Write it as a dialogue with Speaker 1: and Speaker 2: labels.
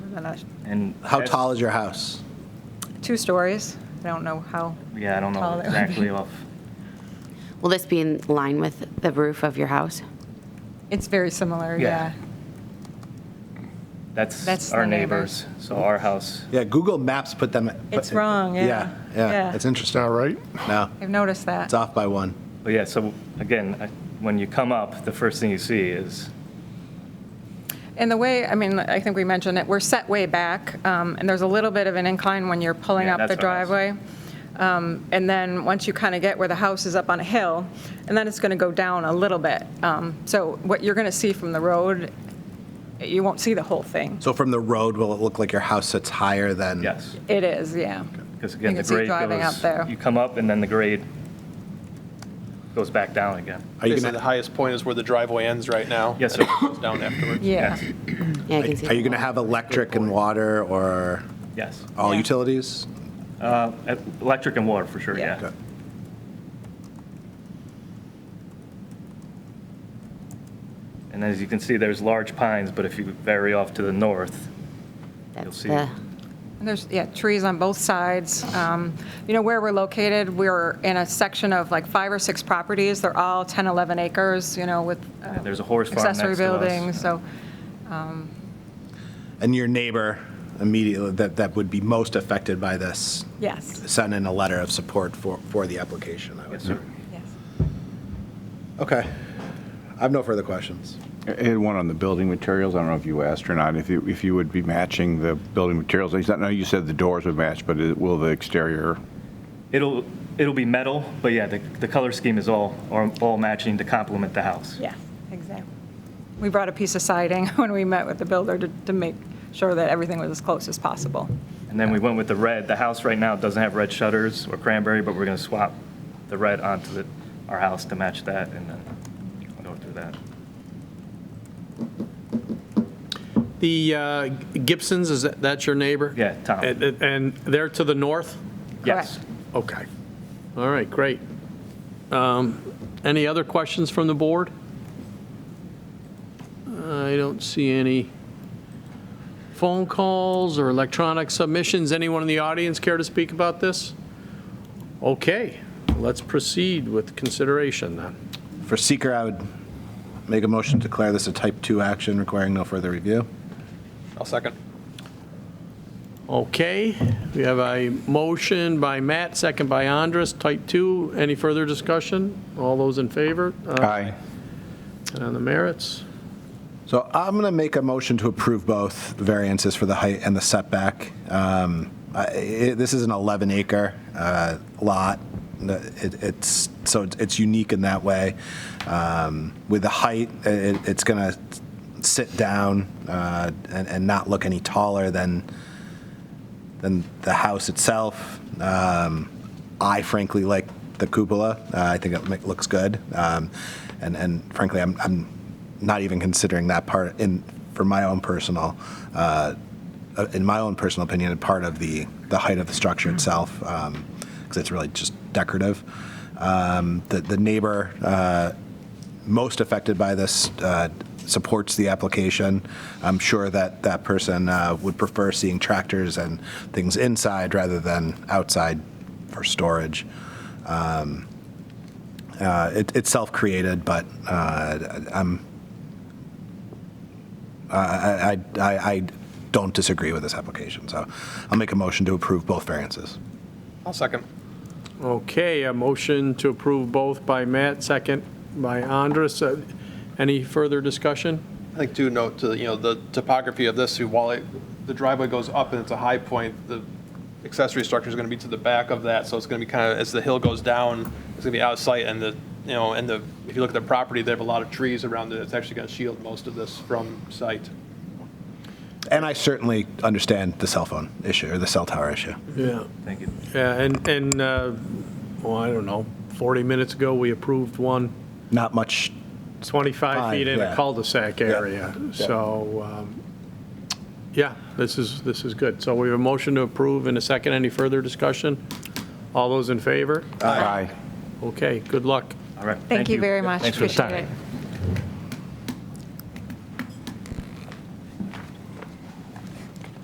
Speaker 1: and a-
Speaker 2: And
Speaker 3: How
Speaker 2: that's-
Speaker 3: tall is your house?
Speaker 1: two stories. I don't know how.
Speaker 2: Yeah, I don't
Speaker 1: tall
Speaker 2: know
Speaker 1: it would be.
Speaker 2: exactly off.
Speaker 4: Will this be in line with the roof of your house?
Speaker 1: It's very similar,
Speaker 2: Yeah.
Speaker 1: yeah.
Speaker 2: That's
Speaker 1: That's
Speaker 2: our
Speaker 1: the
Speaker 2: neighbors,
Speaker 1: neighbors.
Speaker 2: so our house.
Speaker 3: Yeah, Google Maps put them.
Speaker 1: It's wrong, yeah,
Speaker 3: Yeah, yeah,
Speaker 1: yeah.
Speaker 3: it's
Speaker 5: It's
Speaker 3: interesting.
Speaker 5: not right?
Speaker 3: No,
Speaker 1: I've noticed that.
Speaker 3: it's off by one.
Speaker 2: But yeah, so again, I- when you come up, the first thing you see is,
Speaker 1: And the way, I mean, I think we mentioned it, we're set way back, um, and there's a little bit of an incline when you're pulling
Speaker 2: Yeah,
Speaker 1: up the
Speaker 2: that's what I was-
Speaker 1: driveway. Um, And then, once you kind of get where the house is up on a hill, and then it's going to go down a little bit. Um, So what you're going to see from the road, you won't see the whole thing.
Speaker 3: So from the road, will it look like your house sits higher than?
Speaker 2: yes.
Speaker 1: It is, yeah.
Speaker 2: Because again,
Speaker 1: You
Speaker 2: the
Speaker 1: can see
Speaker 2: grade
Speaker 1: driving up there.
Speaker 2: goes, you come up and then the grade goes back down again.
Speaker 3: Are you
Speaker 6: Basically, the
Speaker 3: gonna,
Speaker 6: highest point is where the driveway ends right now.
Speaker 2: Yes,
Speaker 6: and
Speaker 2: sir.
Speaker 6: it goes Down afterwards.
Speaker 1: Yeah.
Speaker 2: Yes,
Speaker 4: Yeah, I
Speaker 3: are
Speaker 4: can see.
Speaker 3: you
Speaker 4: the
Speaker 3: gonna
Speaker 4: wall.
Speaker 3: have electric and water or
Speaker 2: Yes.
Speaker 3: all
Speaker 1: Yeah.
Speaker 3: utilities?
Speaker 2: Uh, e- Electric and water, for sure,
Speaker 1: Yeah.
Speaker 2: yeah. And as you can see, there's large pines, but if you vary off to the north, you'll
Speaker 4: That's
Speaker 2: see.
Speaker 4: the,
Speaker 1: And There's, yeah, trees on both sides. Um, You know, where we're located, we're in a section of like five or six properties. They're all 10, 11 acres, you know, with uh,
Speaker 2: there's a horse farm
Speaker 1: accessory
Speaker 2: next to us.
Speaker 1: buildings, so,
Speaker 3: And your neighbor immediately, that, that would be most affected by this,
Speaker 1: yes.
Speaker 3: sent in a letter of support for, for the application, I
Speaker 2: Yes,
Speaker 3: would say.
Speaker 2: sir.
Speaker 1: yes.
Speaker 3: Okay. I have no further questions.
Speaker 7: I had one on the building materials. I don't know if you asked or not, if you, if you would be matching the building materials. I know you said the doors would match, but it- will the exterior?
Speaker 2: It'll, it'll be metal, but yeah, the, the color scheme is all, are all matching to complement the house.
Speaker 1: Yeah, exactly. We brought a piece of siding when we met with the builder to to make sure that everything was as close as possible.
Speaker 2: And then we went with the red. The house right now doesn't have red shutters or cranberry, but we're going to swap the red onto the, our house to match that, and then we'll go through that.
Speaker 6: The uh, Gibsons, is that, that's your neighbor?
Speaker 2: Yeah, Tom.
Speaker 6: And- And and they're to the north?
Speaker 2: Yes.
Speaker 6: Okay. All right, great. Um, Any other questions from the board? I don't see any phone calls or electronic submissions. Anyone in the audience care to speak about this? Okay, let's proceed with consideration then.
Speaker 3: For seeker, I would make a motion to declare this a type 2 action requiring no further review.
Speaker 6: I'll second.
Speaker 5: Okay, we have a motion by Matt, second by Andres, type 2. Any further discussion? All those in favor? Uh,
Speaker 7: Aye.
Speaker 5: And on the merits?
Speaker 3: So I'm going to make a motion to approve both the variances for the height and the setback. Um, I- it- This is an 11-acre lot. The- it- It's, so it's- it's unique in that way. Um, With the height, it- it's going to sit down uh, and and not look any taller than, than the house itself. Um, I frankly like the cupola. Uh, I think it ma- looks good, um, and and frankly, I'm I'm not even considering that part in for my own personal. Uh, uh, in my own personal opinion, a part of the, the height of the structure itself, because it's really just decorative. Um, the, the neighbor uh, most affected by this uh, supports the application. I'm sure that that person uh, would prefer seeing tractors and things inside rather than outside for storage. Um, uh, it- It's self-created, but uh, I'm, I, I- I I don't disagree with this application, so I'll make a motion to approve both variances.
Speaker 6: I'll second.
Speaker 5: Okay, a motion to approve both by Matt, second by Andres. Uh, Any further discussion?
Speaker 6: I think too, note to, you know, the topography of this, while it, the driveway goes up and it's a high point, the accessory structure is going to be to the back of that, so it's going to be kind of, as the hill goes down, it's going to be out of sight, and the, you know, and the, if you look at the property, they have a lot of trees around it, it's actually going to shield most of this from sight.
Speaker 3: And I certainly understand the cell phone issue, or the cell tower issue.
Speaker 5: Yeah.
Speaker 2: Thank you.
Speaker 5: Yeah, and, and, uh, well, I don't know, 40 minutes ago, we approved one
Speaker 3: Not much
Speaker 5: 25
Speaker 3: Fine,
Speaker 5: feet in
Speaker 3: yeah.
Speaker 5: a cul-de-sac area.
Speaker 3: yeah.
Speaker 5: So, um, yeah, this is, this is good. So we have a motion to approve in a second. Any further discussion? All those in favor?
Speaker 7: Aye.
Speaker 5: Okay, good luck.
Speaker 2: All right.
Speaker 1: Thank you very much,
Speaker 2: Thanks for the
Speaker 1: appreciate
Speaker 2: time.
Speaker 1: it.